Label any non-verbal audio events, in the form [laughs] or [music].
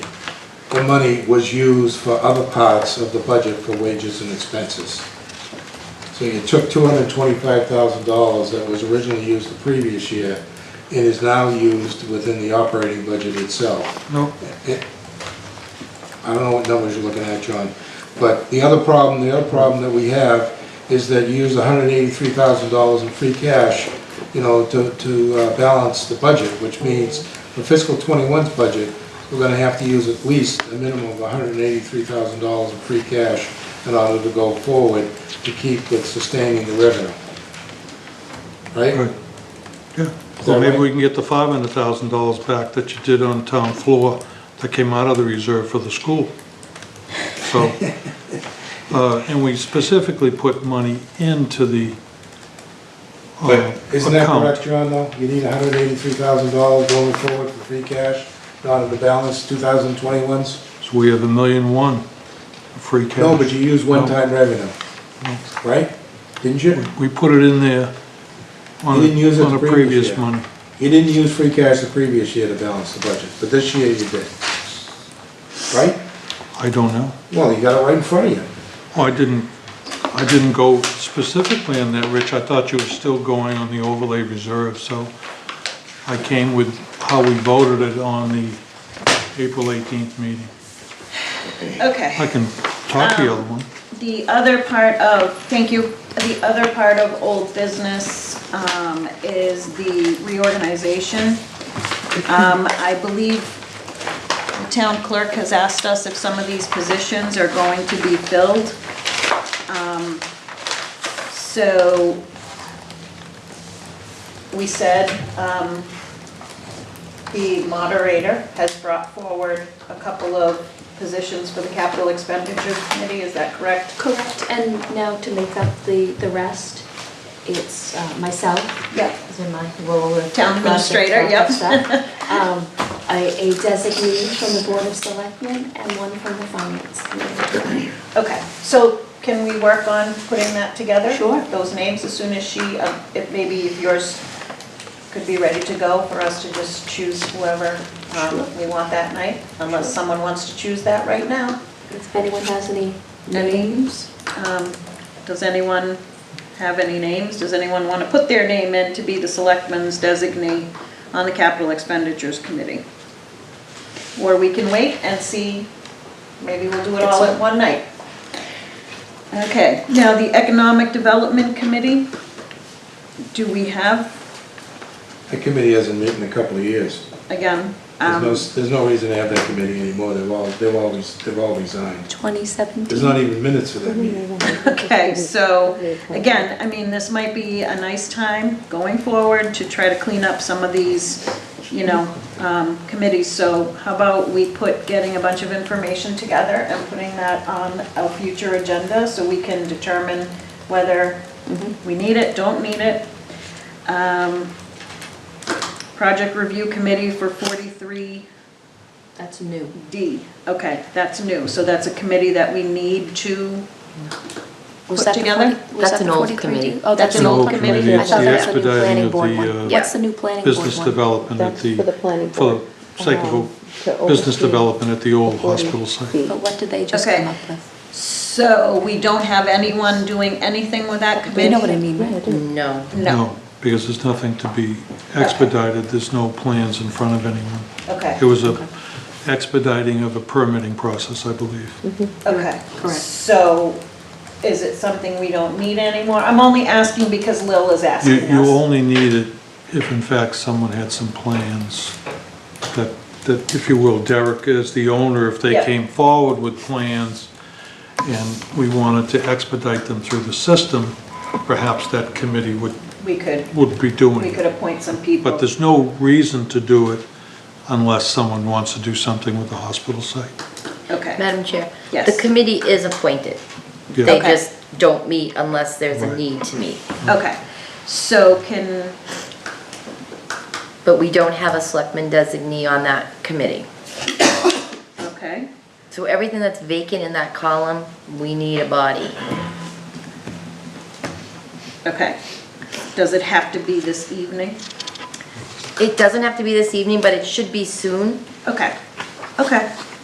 the money was used for other parts of the budget for wages and expenses. So you took two hundred and twenty-five thousand dollars that was originally used the previous year and is now used within the operating budget itself. No, It- I don't know what numbers you're looking at, John, but the other problem, the other problem that we have is that you use hundred and eighty-three thousand dollars in free cash, you know, to, to uh, balance the budget, which means for fiscal 21's budget, we're gonna have to use at least a minimum of hundred and eighty-three thousand dollars in free cash in order to go forward to keep with sustaining the revenue. Right? right, yeah. Is that Well, maybe right? we can get the five hundred thousand dollars back that you did on town floor that came out of the reserve for the school. [laughs] So, uh, and we specifically put money into the uh, Isn't that correct, account. John, though? You need hundred and eighty-three thousand dollars going forward for free cash, out of the balance, 2021's. So we have a million one free cash. No, but you use one-time revenue, No. right? Didn't you? We put it in there on, You didn't use it on a the previous year. previous money. You didn't use free cash the previous year to balance the budget, but this year you did. Right? I don't know. Well, you got it right in front of you. Oh, I didn't, I didn't go specifically on that, Rich. I thought you were still going on the overlay reserve, so I came with how we voted it on the April 18th meeting. I Okay, can talk to the other one. the other part of, thank you, the other part of old business um, is the reorganization. Um, I believe the town clerk has asked us if some of these positions are going to be filled. Um, So we said um, the moderator has brought forward a couple of positions for the capital expenditure committee, is that correct? Correct, and now to make up the, the rest, it's uh, myself, Yeah. as in my role of. Town administrator, [laughs] project yep. stuff. Um, A a designee from the Board of Selectmen and one from the Finance Committee. Okay, so can we work on putting that together? Sure. Those names, as soon as she, uh, if maybe if yours could be ready to go for us to just choose whoever um, we want that night, unless someone wants to choose that right now. If anyone has any, Names? Um, Does anyone have any names? Does anyone want to put their name in to be the selectman's designee on the capital expenditures committee? Or we can wait and see, maybe we'll do it all at one night. Okay, now the economic development committee, do we have, That committee hasn't met in a couple of years. again, There's no, um, there's no reason to have that committee anymore, they've all, they've all, they've all resigned. 2017? There's not even minutes for that meeting. okay, so, again, I mean, this might be a nice time going forward to try to clean up some of these, you know, um, committees. So how about we put getting a bunch of information together and putting that on a future agenda so we can determine whether we need it, don't need it. Um, Project Review Committee for 43 That's new. D, okay, that's new, so that's a committee that we need to, Was put that the together? 40 was That's that the an old 43? committee. Oh, that's an old committee. It's I thought the that was a new expediting planning of board the, one. uh, What's the new planning board one? Business development at Um, That's for the the, planning for board. the sake of, um, to a- business oversee development at the old 40 hospital site. feet. But what did they just Okay. come up with? so we don't have anyone doing anything with that committee? You know what I mean, Yeah, I right? do. No. No, Because there's nothing to be expedited, there's no plans in front of anyone. okay, It was a expediting of a permitting process, I believe. okay. Correct. So is it something we don't need anymore? I'm only asking because Lil is You, asking you us. only need it if in fact someone had some plans that, that, if you will, Derek is the owner, if they Yeah. came forward with plans and we wanted to expedite them through the system, perhaps that committee would, We could, would be we doing could it. appoint some people. But there's no reason to do it unless someone wants to do something with the hospital site. Okay, Madam Chair? Yes. The committee is appointed. Yeah. They Okay. just don't meet unless there's a Right. need to meet. okay, so can, But we don't have a selectman designee on that committee. okay, So everything that's vacant in that column, we need a body. okay. Does it have to be this evening? It doesn't have to be this evening, but it should be soon. Okay, okay.